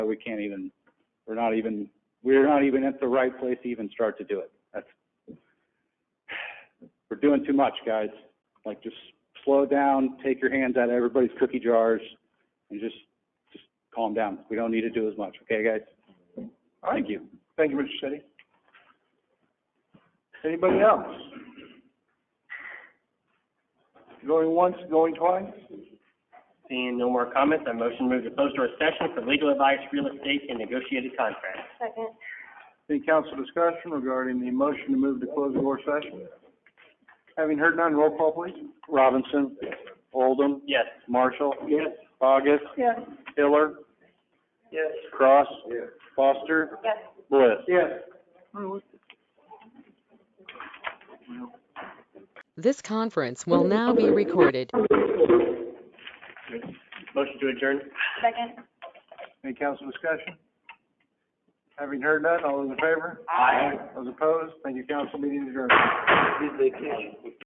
So we can't even, we're not even, we're not even at the right place to even start to do it. That's, we're doing too much, guys. Like, just slow down, take your hands out of everybody's cookie jars, and just, just calm down. We don't need to do as much, okay, guys? All right. Thank you. Thank you, Mr. City. Anybody else? Going once, going twice? Seeing no more comments, I motion move to close to a session for legal advice, real estate, and negotiated contracts. Second. Any council discussion regarding the motion to move to closed door session? Having heard none, roll call, please. Robinson? Oldham? Yes. Marshall? August? Yes. Hiller? Yes. Cross? Foster? Yes. Bliss? Yes. This conference will now be recorded. Motion to adjourn? Second. Any council discussion? Having heard none, all those in favor? Aye. Those opposed? Thank you, council. Meeting adjourned.